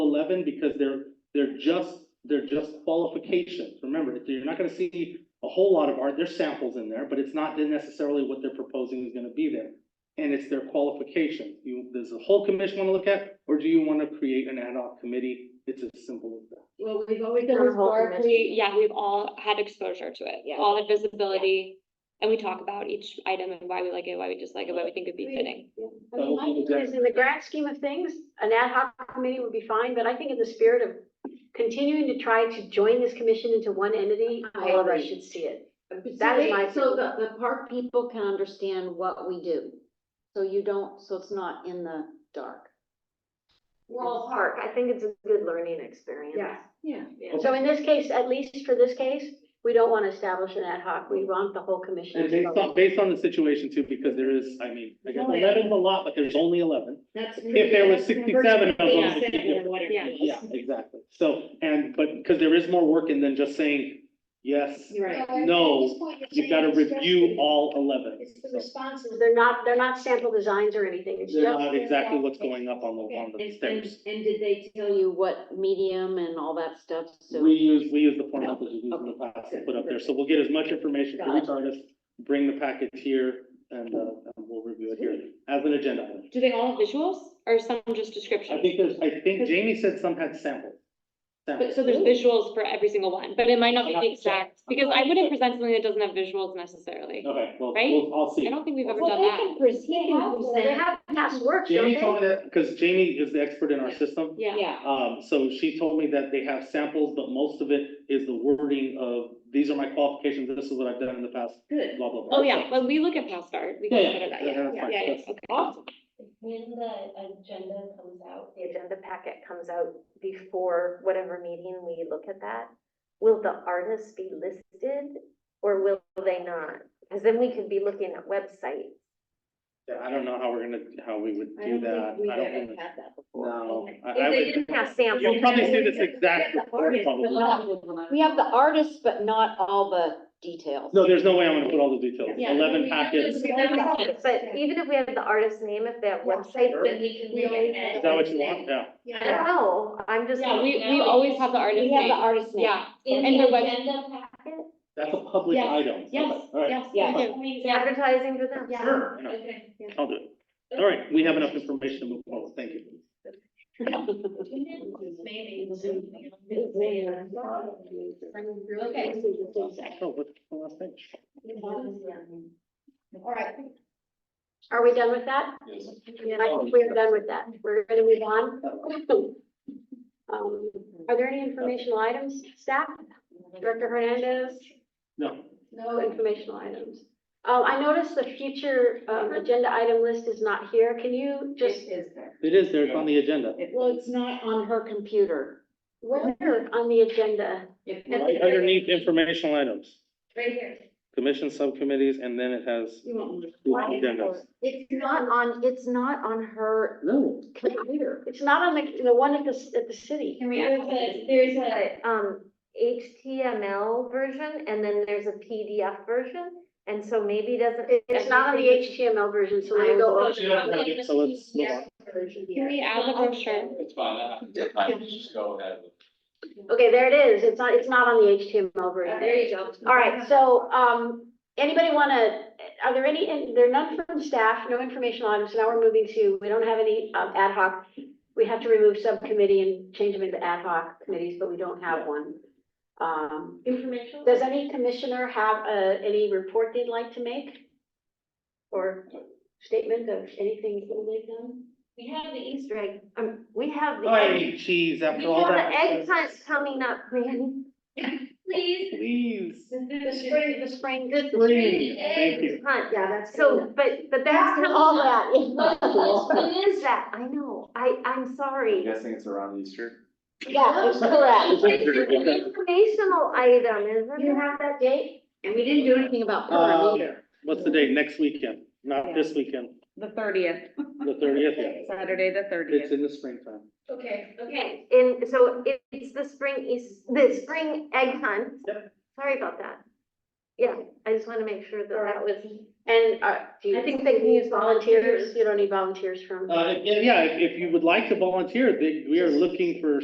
seven because they're, they're just, they're just qualifications. Remember, you're not gonna see a whole lot of art, there's samples in there, but it's not necessarily what they're proposing is gonna be there. And it's their qualifications. You, does the whole commission wanna look at, or do you wanna create an ad hoc committee? It's as simple as that. Well, we've always There done was whole historically, commission. yeah, yeah, we've all had exposure to it, Yeah. all the visibility. And we talk about each item and why we like it, why we dislike it, why we think it'd be Right. fitting. I mean, my view is in the grand scheme of things, an ad hoc committee would be fine, but I think in the spirit of continuing to try to join this commission into one entity, I all of us agree. should see it. So That is they- my So view. the, the park people can understand what we do. So you don't, so it's not in the dark. Well, Park, I think it's a good learning experience. Yeah. Yeah. So in this case, at least for this case, we don't want to establish an ad hoc, we want the whole commission. And based on, based on the situation too, because there is, I mean, I guess Only eleven's a lot, but there's only eleven. That's. If there was sixty-seven of them. it'd be different. Yeah. Yeah, exactly. So, and, but, because there is more work in than just saying, yes, Right. no, you've got to review all eleven. It's the So responses, they're not, they're not sample designs or anything, it's They're just, not exactly what's going up on the, on the And, and, stairs. and did they tell you what medium and all that stuff? So. We use, we use the format that we used in the past to put up there. So we'll get as much information from each artist, bring the package here, and, uh, and we'll review it here as an agenda item. Do they all have visuals or some just descriptions? I think there's, I think Jamie said some had samples. But Samples. so there's visuals for every single one, but it might not be I'm the not sure. exact, because I wouldn't present something that doesn't have visuals necessarily. Okay, well, Right? we'll, I'll see. I don't think we've ever Well, done they that. can proceed. they have past works, don't Jamie they? told me that, because Jamie is the expert in our system. Yeah, Um, so she told me that they have samples, but most of it is the wording of, these are my qualifications, this is what I've done in the past, Good. blah, blah, blah. oh yeah, when we look at past art, we Yeah, yeah, consider that, yeah, yeah, that's yeah, fine. yeah, That's- okay. When the agenda comes out, the agenda packet comes out before whatever meeting we look at that, will the artists be listed or will they not? Because then we could be looking at websites. Yeah, I don't know how we're gonna, how we would I do don't that. think we've I don't ever think- had that before. No. I- If I they would- didn't have samples. You'll probably see this exact report, probably. We have the artists, but not all the details. No, there's no way I'm gonna put all the details. Yeah. Eleven packets. Is But even if we have the artist's name, if they have website, then we can We read it. that what you want? Yeah. Yeah. no, I'm just. Yeah, we, we always have the artist We have the name, artist name. yeah, In And the their web- agenda packet? That's a public Yes, item. yes, Okay, All right. yes, Yeah. we do. yeah. Advertising to them. Yeah. Sure, I know. Okay. I'll do it. All right, we have enough information to move forward. Thank you. Maybe. Okay. Oh, what's the last thing? All right. Are we done with that? Yeah, I think we're done with that. We're gonna move on. Um, are there any informational items, staff? Director Hernandez? No. No informational items. Um, I noticed the future, um, agenda item list is not here. Can you just, It is there, it's on the agenda. Well, it's not on her computer. where on the agenda? Right underneath informational items, Right here. commission subcommittees, and then it has agendas. It's not on, it's not on her No. computer. It's not on the, the one at the, at the city. Can we, there's a, there's a, um, HTML version and then there's a PDF version. And so maybe doesn't. It's not on the HTML version, so we go over. So let's move on. Can we add the brochure? It's fine, I I can just go ahead with. Okay, there it is. It's not, it's not on the HTML version. there you go. All right, so, um, anybody wanna, are there any, and there are none from staff, no information items, so now we're moving to, we don't have any, um, ad hoc. We have to remove subcommittee and change them into ad hoc committees, but we don't have one. Um, Informational? does any commissioner have, uh, any report they'd like to make? Or statement of anything that they've done? We have the Easter egg. Um, we have Hey, cheese, after all that. coming up, man. Please. Please. The spring, the spring. The Please, thank you. Hunt, yeah, that's. So, but, but that's kinda- All that. What is that? I know, I, I'm I'm sorry. guessing it's around Easter. Yeah, that's correct. Uh, Informational item, isn't You have that date? And we didn't do anything about Purim either. Uh, What's the date? Next weekend, not this weekend, The thirtieth, the thirtieth, yeah. Saturday, the It's thirtieth. in the springtime. Okay, okay. Okay, and so it- it's the spring, is the spring egg hunt. Yep. Sorry about that. Yeah, I just want to make sure that that was, And, uh, do you I think they can use volunteers, you don't need volunteers from. Uh, yeah, if, if you would like to volunteer, they, we are looking for